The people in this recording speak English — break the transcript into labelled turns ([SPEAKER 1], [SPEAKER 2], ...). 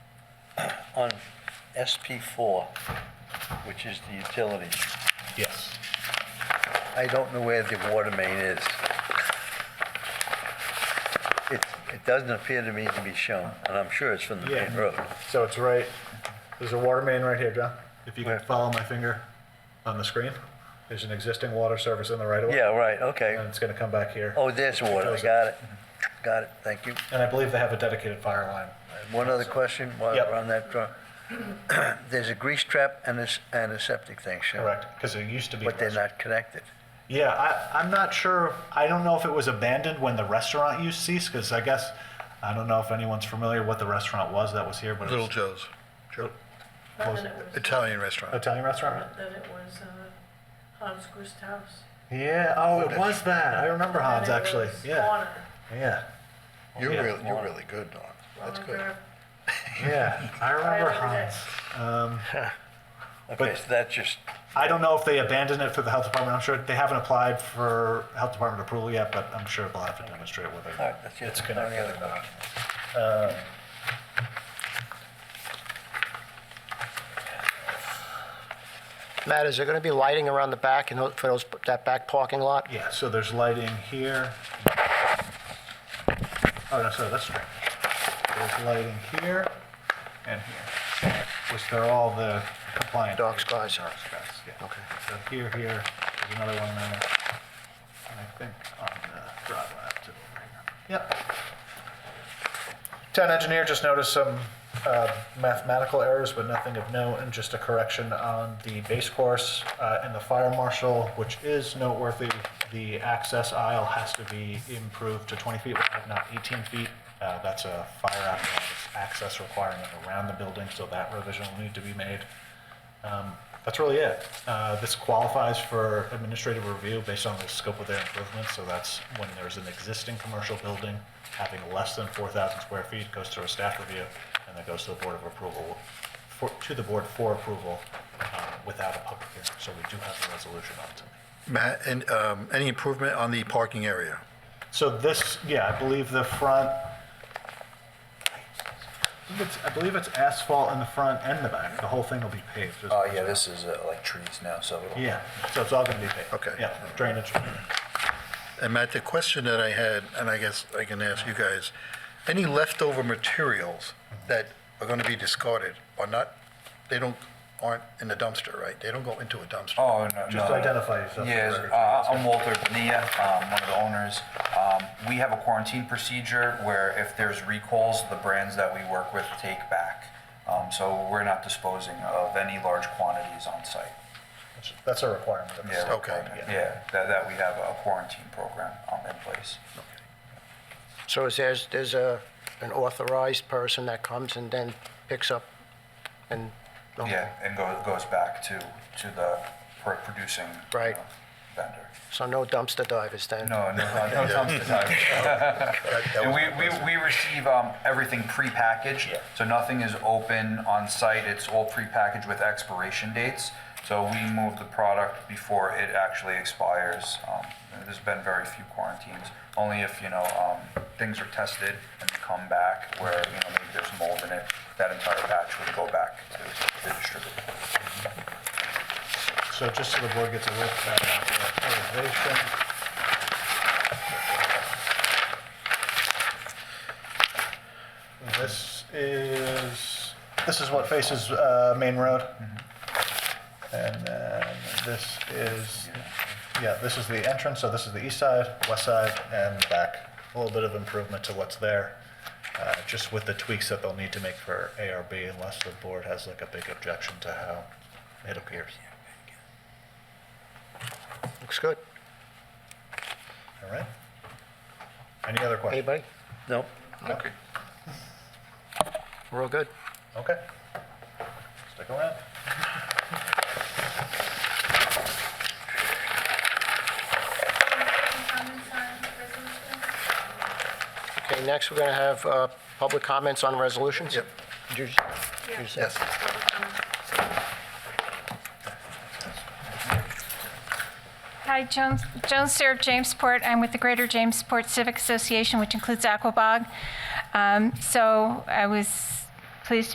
[SPEAKER 1] on SP4, which is the utilities,
[SPEAKER 2] Yes.
[SPEAKER 1] I don't know where the water main is. It, it doesn't appear to me to be shown, and I'm sure it's from the main
[SPEAKER 2] Yeah.
[SPEAKER 1] road.
[SPEAKER 2] So it's right, there's a water main right here, John. If you can follow my finger on the screen, there's an existing water service in the right of way.
[SPEAKER 1] Yeah, right,
[SPEAKER 2] And
[SPEAKER 1] okay.
[SPEAKER 2] it's going to come back here.
[SPEAKER 1] Oh, there's water, I got it. Got it, thank you.
[SPEAKER 2] And I believe they have a dedicated fire line.
[SPEAKER 1] One other question while
[SPEAKER 2] Yep.
[SPEAKER 1] we're on that draw. There's a grease trap and a, s- and a septic tank shown.
[SPEAKER 2] Correct, because it used to be.
[SPEAKER 1] But they're not connected.
[SPEAKER 2] Yeah, I, I'm not sure. I don't know if it was abandoned when the restaurant use ceased, because I guess, I don't know if anyone's familiar what the restaurant was that was here, but it
[SPEAKER 3] Little
[SPEAKER 2] was
[SPEAKER 3] Joe's, Joe,
[SPEAKER 4] But
[SPEAKER 2] Was
[SPEAKER 4] then it was,
[SPEAKER 3] Italian restaurant.
[SPEAKER 2] Italian restaurant. right?
[SPEAKER 4] then it was uh, Hans Gust House.
[SPEAKER 2] Yeah, oh, it was that. I remember Hans,
[SPEAKER 4] Then it
[SPEAKER 2] actually.
[SPEAKER 4] was
[SPEAKER 2] Yeah,
[SPEAKER 4] Warner.
[SPEAKER 2] yeah,
[SPEAKER 3] You're
[SPEAKER 2] Yeah.
[SPEAKER 3] really, you're really good, Don. That's
[SPEAKER 4] Warner
[SPEAKER 3] good.
[SPEAKER 4] Grove.
[SPEAKER 2] yeah. I remember Hans. Um,
[SPEAKER 1] Okay, so that's just,
[SPEAKER 2] I don't know if they abandoned it for the health department. I'm sure they haven't applied for health department approval yet, but I'm sure they'll have to demonstrate whether
[SPEAKER 1] all right, that's it.
[SPEAKER 2] it's
[SPEAKER 1] Any
[SPEAKER 2] connected
[SPEAKER 1] other
[SPEAKER 2] or not.
[SPEAKER 5] Matt, is there going to be lighting around the back and tho- for those, that back parking lot?
[SPEAKER 2] Yeah, so there's lighting here. Oh, no, sorry, that's right. There's lighting here and here, which they're all the compliant.
[SPEAKER 5] Dark skies.
[SPEAKER 2] Dark skies, yeah.
[SPEAKER 5] Okay.
[SPEAKER 2] So here, here, there's another one there. And I think on the Broadway, up to over here. Yep. Town engineer just noticed some uh, mathematical errors, but nothing of note, and just a correction on the base course uh, and the fire marshal, which is noteworthy. The access aisle has to be improved to 20 feet wide, not 18 feet. Uh, That's a fire apparatus access requirement around the building, so that revision will need to be made. Um, That's really it. Uh, This qualifies for administrative review based on the scope of their improvements, so that's when there's an existing commercial building having less than 4,000 square feet, goes through a staff review, and then goes to the Board of Approval, for- to the Board for approval um, without a public hearing. So we do have a resolution on it.
[SPEAKER 3] Matt, and, um, any improvement on the parking area?
[SPEAKER 2] So this, yeah, I believe the front, I think it's- I believe it's asphalt in the front and the back. The whole thing will be paved. is-
[SPEAKER 6] Oh, yeah, this is uh, like trees now, so it'll.
[SPEAKER 2] Yeah, so it's all going to be paved.
[SPEAKER 3] Okay.
[SPEAKER 2] Yeah, drainage.
[SPEAKER 3] And Matt, the question that I had, and I guess I can ask you guys, any leftover materials that are going to be discarded are not, they don't, aren't in the dumpster, right? They don't go into a dumpster.
[SPEAKER 6] Oh, no, no.
[SPEAKER 2] Just
[SPEAKER 6] no.
[SPEAKER 2] identify yourself.
[SPEAKER 6] Yes, uh, I'm Walter Benia, um, one of the owners. Um, we have a quarantine procedure where if there's recalls, the brands that we work with take back. Um, so we're not disposing of any large quantities on site.
[SPEAKER 2] That's a requirement. of the
[SPEAKER 6] Yeah,
[SPEAKER 2] state.
[SPEAKER 3] Okay.
[SPEAKER 6] Yeah, that, that we have a quarantine program, um, in place.
[SPEAKER 5] So is there's, there's a, an authorized person that comes and then picks up and,
[SPEAKER 6] Yeah, and goes, goes back to, to the pro- producing. you
[SPEAKER 5] Right.
[SPEAKER 6] know, Vendor.
[SPEAKER 5] so no dumpster divers then?
[SPEAKER 6] No, no, no, no dumpster diving.
[SPEAKER 3] that
[SPEAKER 6] And
[SPEAKER 3] was
[SPEAKER 6] we, we, we receive, um, everything prepackaged.
[SPEAKER 2] Yeah.
[SPEAKER 6] So nothing is open on site, it's all prepackaged with expiration dates. So we move the product before it actually expires. Um, and there's been very few quarantines, only if, you know, um, things are tested and they come back where, you know, maybe there's mold in it, that entire batch would go back to the distributor.
[SPEAKER 2] So just so the board gets a look at our elevation. This is, this is what faces uh, Main Road. And then this is, yeah, this is the entrance, so this is the east side, west side, and back. A little bit of improvement to what's there, uh, just with the tweaks that they'll need to make for ARB unless the board has like a big objection to how it appears.
[SPEAKER 5] Looks good.
[SPEAKER 2] All right. Any other questions?
[SPEAKER 5] Anybody?
[SPEAKER 1] nope.
[SPEAKER 2] Okay.
[SPEAKER 5] We're all good.
[SPEAKER 2] Okay. Stick around.
[SPEAKER 5] Okay, next we're going to have, uh, public comments on resolutions?
[SPEAKER 3] Yep.
[SPEAKER 5] Did you- did you say-
[SPEAKER 3] Yes.
[SPEAKER 7] Hi, Jones, Jones Sarah Jamesport. I'm with the Greater Jamesport Civic Association, which includes Aquabog. Um, So I was pleased